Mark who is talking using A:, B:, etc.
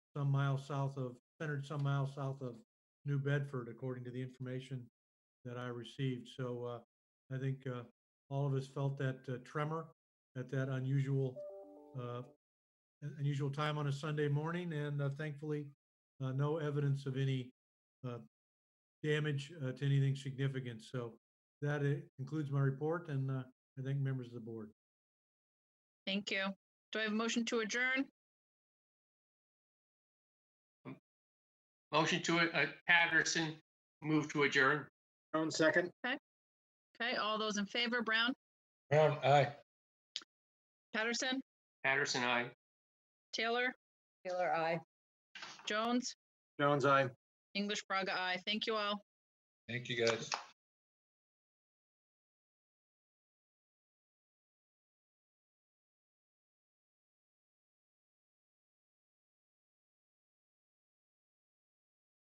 A: some miles south of, centered some miles south of New Bedford, according to the information that I received. So uh, I think uh, all of us felt that uh, tremor at that unusual, uh, un- unusual time on a Sunday morning, and uh, thankfully, uh, no evidence of any uh, damage uh, to anything significant. So that uh, concludes my report, and uh, I thank members of the board.
B: Thank you. Do I have a motion to adjourn?
C: Motion to, uh, Patterson, move to adjourn.
D: Brown, second.
B: Okay, all those in favor, Brown,
E: Brown, aye.
B: Patterson,
C: Patterson, aye.
B: Taylor,
F: Taylor, I.
B: Jones,
D: Jones, aye.
B: English Braga, I. Thank you all.
E: Thank you, guys.